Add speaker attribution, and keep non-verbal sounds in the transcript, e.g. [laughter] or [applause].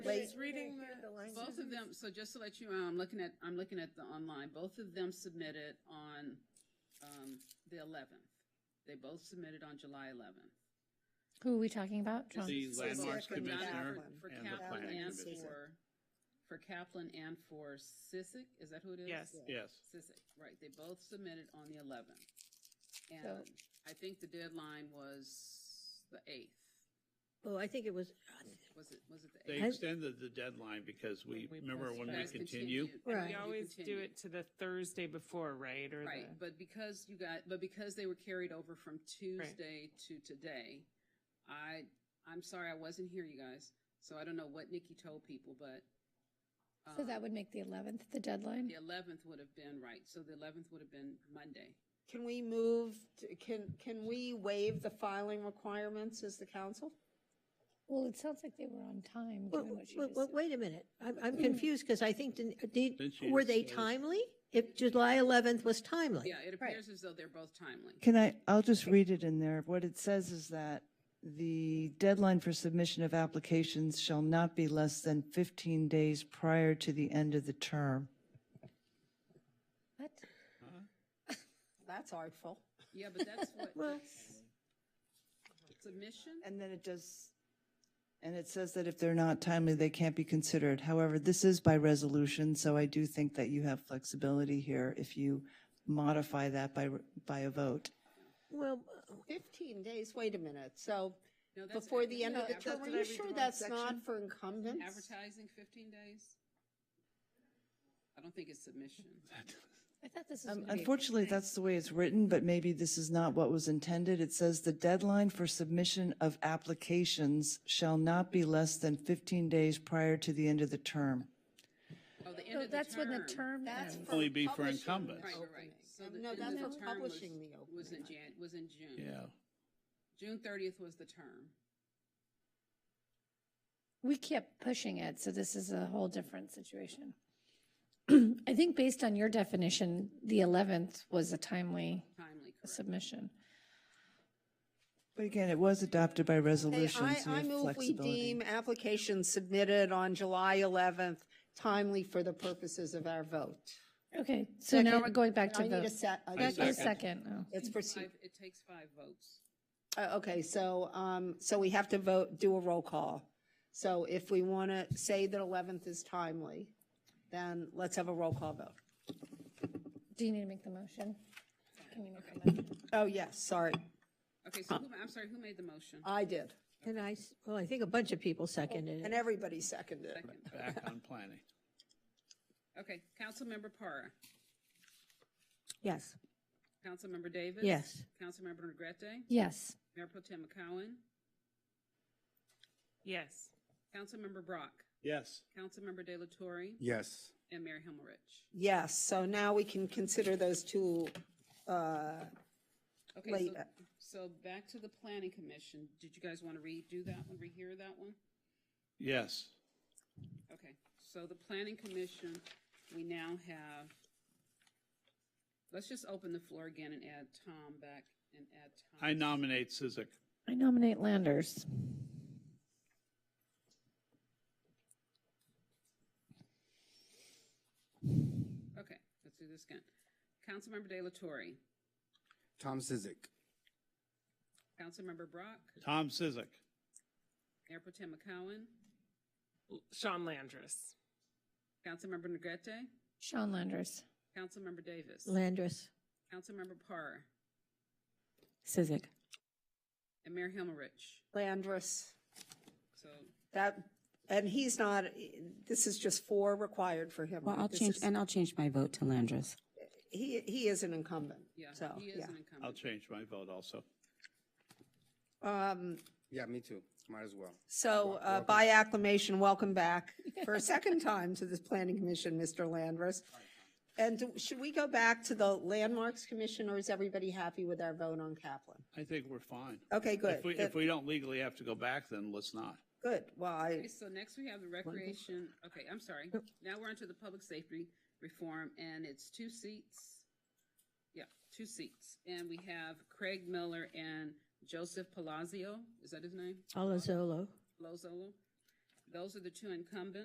Speaker 1: late.
Speaker 2: She's reading
Speaker 3: Hear the
Speaker 2: the.
Speaker 3: language.
Speaker 4: Both of them, so just to let you, know, I'm looking at, I'm looking at the online, both of them submitted on, um, the eleventh. They both submitted on July eleventh.
Speaker 5: Who are we talking about? John?
Speaker 6: The landmarks
Speaker 2: second
Speaker 6: commissioner
Speaker 2: one.
Speaker 4: For
Speaker 6: and the
Speaker 4: Kaplan
Speaker 6: planning
Speaker 4: and
Speaker 6: commission.
Speaker 4: for, for Kaplan and for Sissick, is that who it is?
Speaker 2: Yes.
Speaker 6: Yes,
Speaker 4: Sissick, right, they both submitted on the eleventh.
Speaker 5: So-
Speaker 4: And I think the deadline was the eighth,
Speaker 3: Oh, I think it was,
Speaker 4: was it, was it the
Speaker 6: they
Speaker 4: eighth?
Speaker 6: extended the deadline because we,
Speaker 2: We
Speaker 6: remember when we
Speaker 4: Guys
Speaker 6: continue?
Speaker 4: continued, and
Speaker 3: Right.
Speaker 2: We
Speaker 4: you
Speaker 2: always do
Speaker 4: continued.
Speaker 2: it to the Thursday before, right? Or
Speaker 4: Right,
Speaker 2: the,
Speaker 4: but because you got, but because they were carried over from Tuesday to today, I, I'm sorry, I wasn't here, you guys. So I don't know what Nikki told people, but um,
Speaker 5: So that would make the 11th the
Speaker 4: the
Speaker 5: deadline.
Speaker 4: eleventh would have been right. So the eleventh would have been Monday.
Speaker 3: can we move, to- can, can we waive the filing requirements as the council?
Speaker 5: Well, it sounds like they were on time, given
Speaker 3: Well,
Speaker 5: what you
Speaker 3: well,
Speaker 5: just
Speaker 3: well,
Speaker 5: said.
Speaker 3: Wait a minute, I'm, I'm confused, because I think, didn't- did,
Speaker 6: Didn't she
Speaker 3: were they
Speaker 6: just say-
Speaker 3: timely? If July 11th was timely?
Speaker 4: Yeah, it appears as though they're both timely.
Speaker 7: Can I, I'll just read it in there. What it says is that the deadline for submission of applications shall not be less than 15 days prior to the end of the term.
Speaker 5: What?
Speaker 3: That's artful.
Speaker 4: Yeah, but that's what, that's submission?
Speaker 7: And then it does, and it says that if they're not timely, they can't be considered. However, this is by resolution, so I do think that you have flexibility here if you modify that by, by a vote.
Speaker 3: Well, 15 days, wait a minute, so
Speaker 4: No, that's
Speaker 3: before the end of the
Speaker 4: advertising.
Speaker 3: term, are you sure that's not for incumbents?
Speaker 4: Advertising fifteen days? I don't think it's submission.
Speaker 5: I thought this
Speaker 3: um,
Speaker 5: was gonna be-
Speaker 7: Unfortunately, that's the way it's written, but maybe this is not what was intended. It says the deadline for submission of applications shall not be less than 15 days prior to the end of the term.
Speaker 4: Oh, the end
Speaker 5: So
Speaker 4: of the term.
Speaker 5: that's when the term
Speaker 3: That's
Speaker 5: ends.
Speaker 3: for
Speaker 6: Only be for
Speaker 3: publishing
Speaker 6: incumbents.
Speaker 3: the
Speaker 4: Right, right,
Speaker 3: opening.
Speaker 4: right. So the
Speaker 3: No,
Speaker 4: end
Speaker 3: that's
Speaker 4: of
Speaker 3: for
Speaker 4: the term was,
Speaker 3: publishing the opening.
Speaker 4: was in Jan, was in June.
Speaker 6: Yeah,
Speaker 4: June thirtieth was the term.
Speaker 5: We kept pushing it, so this is a whole different situation. [clears throat] I think based on your definition, the 11th was a timely
Speaker 4: Timely, correct.
Speaker 5: submission.
Speaker 7: But again, it was adopted by
Speaker 3: Okay,
Speaker 7: resolution,
Speaker 3: I,
Speaker 7: so you
Speaker 3: I
Speaker 7: have
Speaker 3: move we deem
Speaker 7: flexibility.
Speaker 3: applications submitted on July 11th timely for the purposes of our vote.
Speaker 5: Okay, so now
Speaker 3: Second.
Speaker 5: we're going back
Speaker 3: I
Speaker 5: to
Speaker 3: need a
Speaker 5: vote.
Speaker 3: sec-
Speaker 6: I
Speaker 3: a
Speaker 5: A
Speaker 3: second.
Speaker 6: second.
Speaker 5: second, oh.
Speaker 3: It's proceed,
Speaker 4: Five- It takes five votes.
Speaker 3: uh, okay, so, um, so we have to vote, do a roll call. So if we want to say that 11th is timely, then let's have a roll call vote.
Speaker 5: Do you need to make the motion? Can you make a motion?
Speaker 3: Oh, yes, sorry,
Speaker 4: Okay, so who, I'm sorry, who made the motion?
Speaker 3: I did,
Speaker 8: And I, s- well, I think a bunch of people seconded
Speaker 3: and
Speaker 8: it.
Speaker 3: everybody seconded it.
Speaker 4: Second.
Speaker 6: back on planning.
Speaker 4: Okay, Councilmember Parra,
Speaker 8: Yes.
Speaker 4: Councilmember Davis?
Speaker 8: Yes.
Speaker 4: Councilmember Negrete,
Speaker 5: Yes.
Speaker 4: Mayor Pro Tem McCowen,
Speaker 2: yes.
Speaker 4: Councilmember Brock,
Speaker 6: Yes,
Speaker 4: Councilmember De La Torre,
Speaker 9: Yes.
Speaker 4: and Mayor Himmerich.
Speaker 3: Yes, so now we can consider those two, uh,
Speaker 4: Okay, so,
Speaker 3: Later.
Speaker 4: so back to the planning commission. Did you guys want to redo that one, rehear that one?
Speaker 6: yes.
Speaker 4: Okay, so the planning commission, we now have, let's just open the floor again and add Tom back and add Tom.
Speaker 6: I nominate Sizik.
Speaker 5: I nominate Landers.
Speaker 4: Okay, let's do this again. Councilmember De La Torre,
Speaker 9: Tom Sizik.
Speaker 4: Councilmember Brock,
Speaker 6: Tom Sizik.
Speaker 4: Mayor Pro Tem McCowen,
Speaker 2: Sean Landris.
Speaker 4: Councilmember Negrete,
Speaker 5: Sean Landers.
Speaker 4: Councilmember Davis,
Speaker 8: Landris.
Speaker 4: Councilmember Parr,
Speaker 8: Sizik.
Speaker 4: and Mayor Himmerich.
Speaker 3: Landris,
Speaker 4: So,
Speaker 3: that, and he's not, this is just four required for him.
Speaker 10: Well, I'll
Speaker 3: This
Speaker 10: change,
Speaker 3: is-
Speaker 10: and I'll change my vote to Landris.
Speaker 3: He, he is an incumbent,
Speaker 4: yeah,
Speaker 3: so,
Speaker 4: he is
Speaker 3: yeah.
Speaker 4: an
Speaker 6: I'll
Speaker 4: incumbent.
Speaker 6: change my vote also.
Speaker 3: Um,
Speaker 9: Yeah, me too. Might as well.
Speaker 3: So uh, by acclamation, welcome back for a second time to this planning commission, Mr. Landris. And do- should we go back to the landmarks commission, or is everybody happy with our vote on Kaplan?
Speaker 6: I think we're fine.
Speaker 3: Okay, good.
Speaker 6: If we, if we don't legally have to go back, then let's not.
Speaker 3: Good, well, I,
Speaker 4: Okay, so next we have the recreation, okay, I'm sorry. Now we're onto the public safety reform, and it's two seats. Yeah, two seats. And we have Craig Miller and Joseph Palazzo, is that his name?
Speaker 8: Olazolo.
Speaker 4: Lozolo. Those are the two incumbents.